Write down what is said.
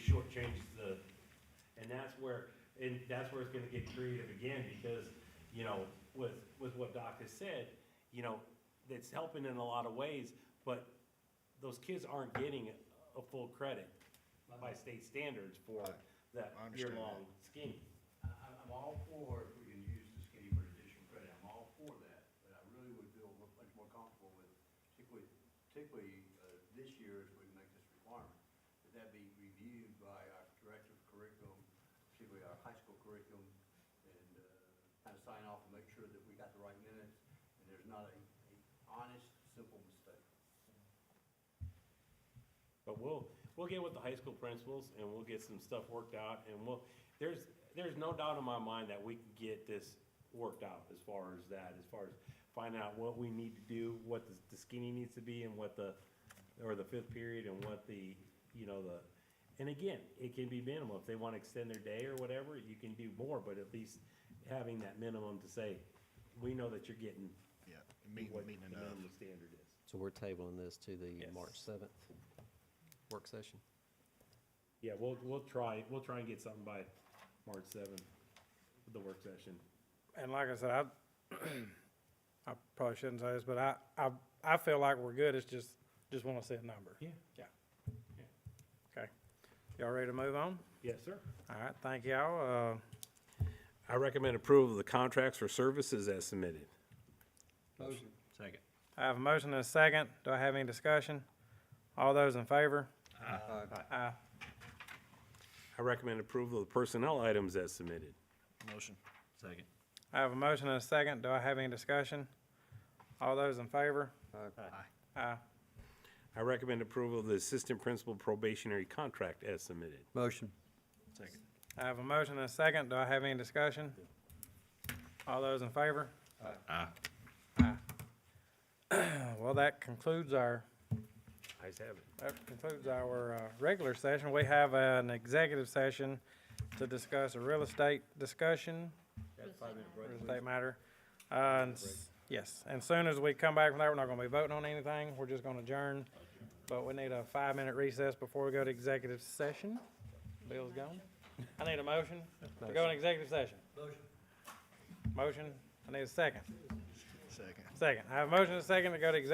change the, and that's where, and that's where it's gonna get creative again, because, you know, with, with what Doc has said, you know, it's helping in a lot of ways, but those kids aren't getting a full credit by state standards for Right. that I understand that. year-long scheme. I, I'm- I'm all for if we can use the skinny for additional credit, I'm all for that, but I really would feel mu- much more comfortable with, particularly, particularly, uh, this year if we make this requirement, that that be reviewed by our director of curriculum, particularly our high school curriculum, and, uh, kind of sign off and make sure that we got the right minutes, and there's not a, a honest, simple mistake. But we'll, we'll get with the high school principals and we'll get some stuff worked out and we'll, there's, there's no doubt in my mind that we can get this worked out as far as that, as far as finding out what we need to do, what the- the skinny needs to be and what the, or the fifth period and what the, you know, the, and again, it can be minimal. If they want to extend their day or whatever, you can do more, but at least having that minimum to say, we know that you're getting Yeah, meeting, what the meeting enough. minimum standard is. So we're tabling this to the Yes. March 7th work session? Yeah, we'll, we'll try, we'll try and get something by March seventh, the work session. And like I said, I, I probably shouldn't say this, but I, I, I feel like we're good, it's just, just wanna see a number. Yeah. Yeah. Yeah. Okay. Y'all ready to move on? Yes, sir. All right, thank y'all, uh, I recommend approval of the contracts for services as submitted. Second. I have a motion and a second, do I have any discussion? All those in favor? Aye. I recommend approval of the personnel items as submitted. Motion. Second. I have a motion and a second, do I have any discussion? All those in favor? Aye. Aye. I recommend approval of the assistant principal probationary contract as submitted. Motion. Second. I have a motion and a second, do I have any discussion? All those in favor? Aye. Well, that concludes our Eyes have it. That concludes our uh, regular session. We have an executive session to discuss a real estate discussion, real estate matter. Uh, and s- Yes, and soon as we come back from that, we're not going to be voting on anything. We're just going to adjourn. But we need a five-minute recess before we go to executive session. Bill's gone. I need a motion to go in executive session. Motion. Motion. I need a second. Second. Second. I have a motion and a second to go to executive